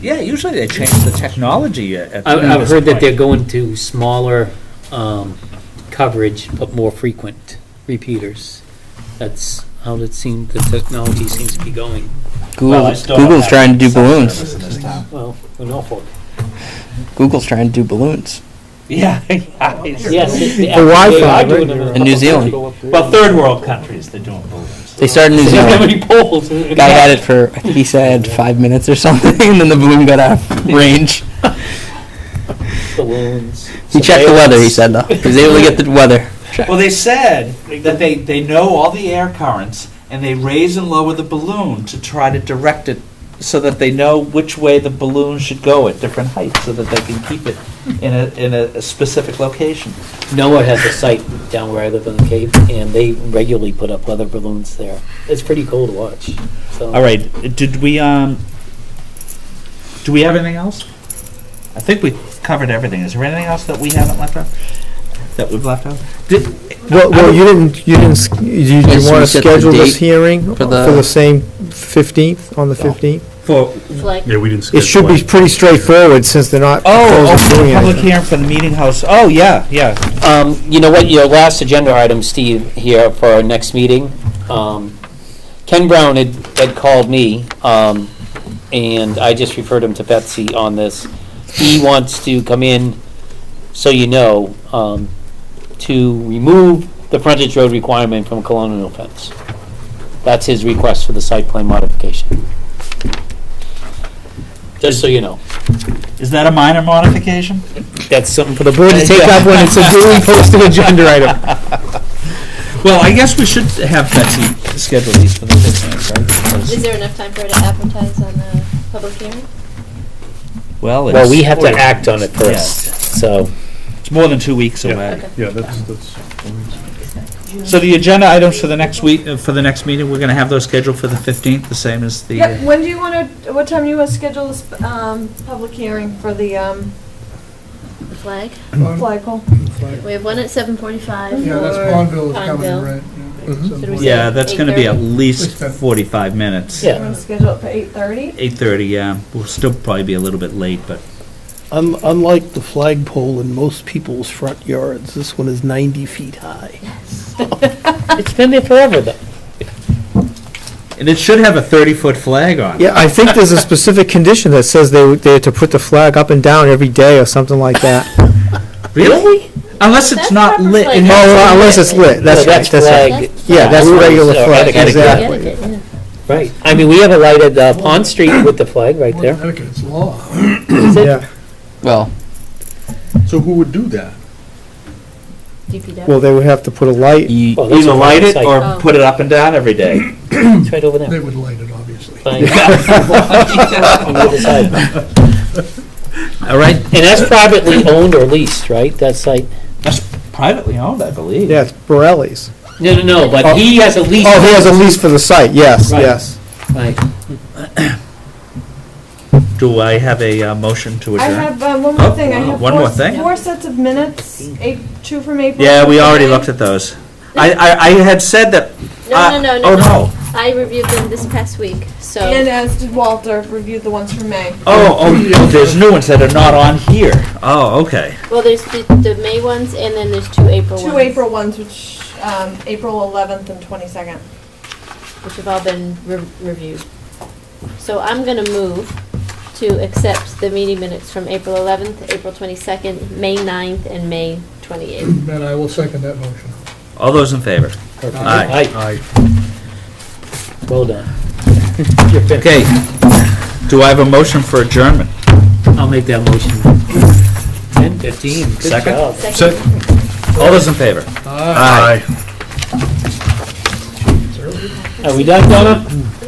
Yeah, usually they change the technology at. at I- I've this heard that point. they're going to smaller um, coverage, but more frequent repeaters. That's how it seems, the technology seems to be going. Google, Google's trying to do balloons. Well, in Norfolk. Google's trying to do balloons. Yeah. Yes. it- The Wi-Fi, I do right? it a In couple New Zealand. countries go up Well, third world countries, they're doing balloons. They started in New there. They don't have Zealand. any poles. Guy had it for, I think he said five minutes or something, and then the balloon got out of range. Balloons. He checked the weather, he said, though. He was able to get the weather. Well, they said that they, they know all the air currents and they raise and lower the balloon to try to direct it so that they know which way the balloon should go at different heights so that they can keep it in a, in a specific location. NOAA has a site down where I live in the Cape, and they regularly put up weather balloons there. It's pretty cool to watch, so. All right, did we, um, do we have anything else? I think we covered everything. Is there anything else that we haven't left out? That we've left out? Did, Well, I well, don't- you didn't, you didn't, s- you- you Yes, we want to set the schedule this date hearing for for the- the same 15th, on the 15th? for, Flag, Yeah, we didn't. It should be pretty straightforward, since they're not oh, proposing oh, doing the public anything. hearing for the meeting house. Oh, yeah, yeah. Um, you know what, your last agenda item, Steve, here for our next meeting, um, Ken Brown had, had called me, um, and I just referred him to Betsy on this. He wants to come in, so you know, um, to remove the frontage road requirement from colonial fence. That's his request for the site plan modification. Just so you know, Is that a minor modification? that's something for The board to take up when it's a duly posted agenda item. Well, I guess we should have Betsy schedule these for the fifteenth, right? is Because- there enough time for her to advertise on the public hearing? Well, Well, it's, we have to act on it first, so. it's more than two weeks away. Okay. Yeah, that's, that's. So the agenda items for the next week, uh, for the next meeting, we're gonna have those scheduled for the fifteenth, the same as the. uh, Yep, when do you want to, what time do you want to schedule this um, public hearing for the um, The flag? flagpole? We have one at seven forty-five. Yeah, that's Bonneville is coming, right? Mm-hmm. Mhm. Yeah, that's gonna be at least 8:30. forty-five minutes. Yeah. You want to schedule it for 8:30? Eight-thirty, yeah, uh, we'll still probably be a little bit late, but, Un- Unlike the flagpole in most people's front yards, this one is 90 feet high. It's been there forever, though. and it should have a thirty-foot flag on it. Yeah, I think there's a specific condition that says they, would- they had to put the flag up and down every day or something like that. Really? Unless it's That's not proper lit. flag. It has- Oh, unless it's lit, that's right, that's right. flag. Yeah, that's rules regular or flag, etiquette. exactly. Etiquette, yeah. Right. I mean, we have a light at uh, Pond Street with the flag right Well, there. Connecticut's law. Yeah, Well, So who would do that? DPW. well, they would have to put a light, you, Well, those Either are light it outside. or put it up and down every day. It's right over They there. would light it, obviously. Flag on either side. All right, And that's privately owned or leased, right? That site? That's privately owned, I believe. yeah, it's Borelli's. No, no, no, but he has a lease. Oh, he has a lease for the site, yes, Right. yes. Right. Do I have a uh, motion to I adjourn? have um, one Oh, more thing. I have one more four- thing? Four sets of minutes, eight, two from April. Yeah, we two from already May. looked at those. I, I, I had said that. uh, No, no, no, no, Oh, no. I reviewed them this past week, so. And as did Walter, reviewed the ones from May. no. Oh, oh, oh, there's new ones that are not on here. Oh, okay. Well, there's the, the May ones and then there's two April ones. Two April ones, which, um, April 11th and 22nd. Which have all been re- reviewed. So I'm gonna move to accept the meeting minutes from April eleventh, April twenty-second, May 9th, and May twenty-eighth. And I will second that motion. All those in favor? Aye. Aye. Well done. Okay. Do I have a motion for adjournment? I'll make that motion. Ten fifteen. Good Second? job. Second. All those in favor? Aye. Are we done, Donna?